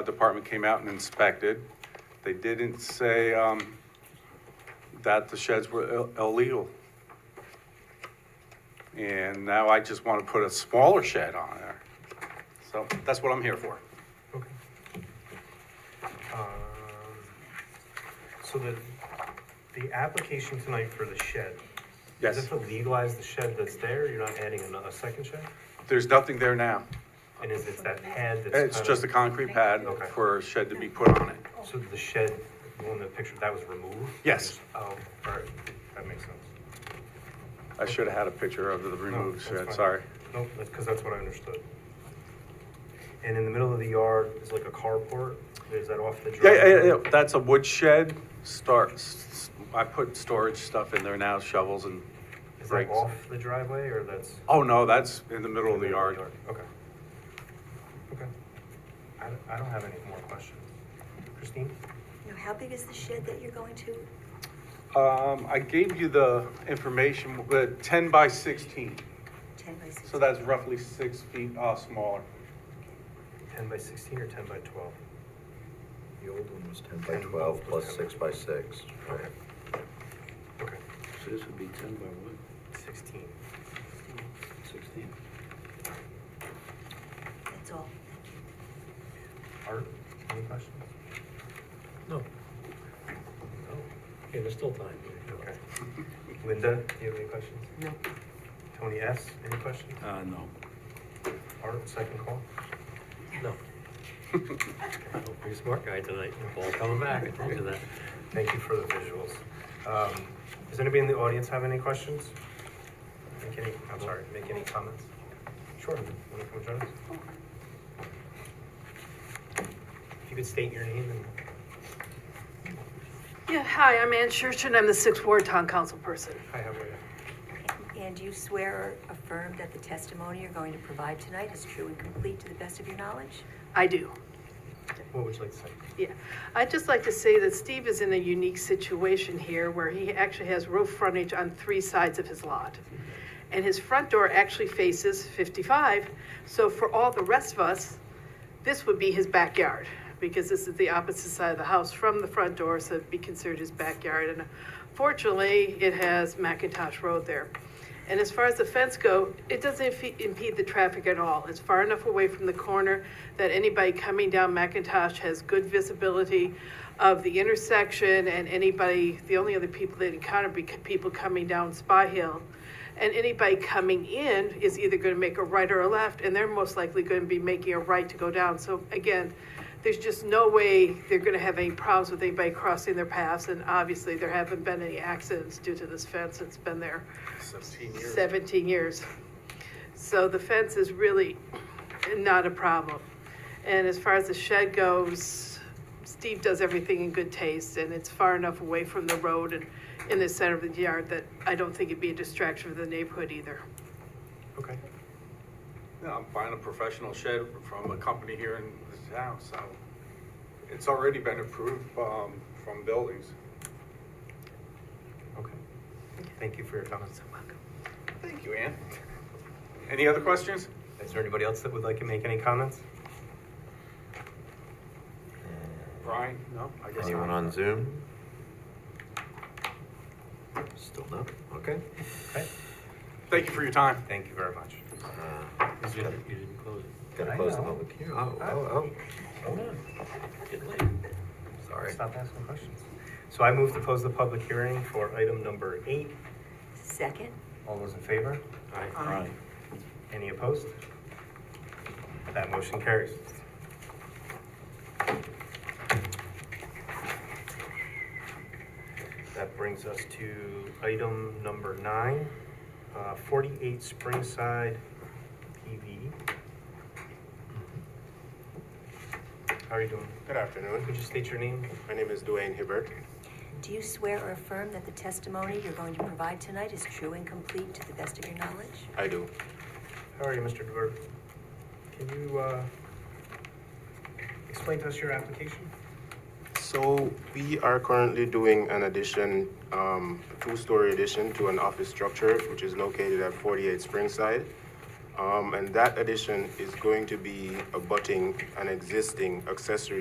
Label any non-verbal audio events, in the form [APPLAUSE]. a department came out and inspected. They didn't say, um, that the sheds were ill- illegal. And now I just want to put a smaller shed on there. So that's what I'm here for. Okay. Um, So the, the application tonight for the shed. Is Yes, it to legalize the shed that's there? You're not adding another, a second shed? there's nothing there now. And is it that pad that's? It's kinda- just a concrete pad Okay. for a shed to be put on it. So the shed, the one in the picture, that was removed? Yes. Oh, alright, that makes sense. I should have had a picture of the No, removed that's shed, fine. sorry. Nope, that's, cause that's what I understood. And in the middle of the yard is like a carport? Is that off the Yeah, driveway? yeah, yeah, that's a wood shed, starts, I put storage stuff in there now, shovels and Is that rakes. off the driveway or that's? Oh, no, that's in the middle of the yard. Okay. Okay. I, don't- I don't have any more questions. Christine? Now, how big is the shed that you're going to? Um, I gave you the information, uh, ten by sixteen, Ten by sixteen? so that's roughly six feet, uh, smaller. Ten by sixteen or ten by twelve? The old one was ten by twelve plus six by six. Okay. Okay, So this would be ten by what? sixteen. Sixteen? That's all. Art, any questions? No, No. yeah, there's still time. Okay. [LAUGHS] Linda, do you have any questions? No. Tony S., any questions? Uh, no. Art, second call? [LAUGHS] No. You're a smart guy [LAUGHS] tonight, ball coming back, I told you that. Thank you for the visuals. Um, Does anybody in the audience have any questions? Make any, I'm sorry, make any comments? Sure, want to come join us? If you could state your name and, Yeah, hi, I'm Ann Church, and I'm the sixth ward town council person. hi, how are you? And do you swear or affirm that the testimony you're going to provide tonight is true and complete to the best of your knowledge? I do. What would you like to say? Yeah, I'd just like to say that Steve is in a unique situation here where he actually has roof frontage on three sides of his lot. And his front door actually faces 55, so for all the rest of us, this would be his backyard because this is the opposite side of the house from the front door, so it'd be considered his backyard. And fortunately, it has Macintosh Road there. And as far as the fence go, it doesn't impe- impede the traffic at all. It's far enough away from the corner that anybody coming down McIntosh has good visibility of the intersection and anybody, the only other people they encounter be c- people coming down Spy Hill. And anybody coming in is either going to make a right or a left, and they're most likely going to be making a right to go down. So again, there's just no way they're going to have any problems with anybody crossing their paths. And obviously, there haven't been any accidents due to this fence. It's been there 17 years. So the fence is really not a problem. And as far as the shed goes, Steve does everything in good taste, and it's far enough away from the road and in the center of the yard that I don't think it'd be a distraction for the neighborhood either. Okay. Yeah, I'm buying a professional shed from a company here in this town, so it's already been approved, um, from buildings. Okay. Thank you for your comments. Thank you, Ann. Any other questions? Is there anybody else that would like to make any comments? Brian? No, I guess Anyone not. on Zoom? Still no? Okay. Okay, Thank you for your time. thank you very much. Uh, You didn't- you didn't close it. Gotta I close the know. public hearing. Oh, oh, Hold on, get late. oh, sorry. Stop asking questions. So I move to close the public hearing for item number eight. Second? All those in favor? Aye. Right. Any opposed? That motion carries. That brings us to item number nine, uh, 48 Springside PV. How are you doing? Good afternoon. Could you state your name? My name is Duane Hibbert. Do you swear or affirm that the testimony you're going to provide tonight is true and complete to the best of your knowledge? I do. How are you, Mr. DeVere? Can you uh, explain to us your application? So we are currently doing an addition, um, a two-story addition to an office structure, which is located at 48 Springside. Um, um, and that addition is going to be abutting an existing accessory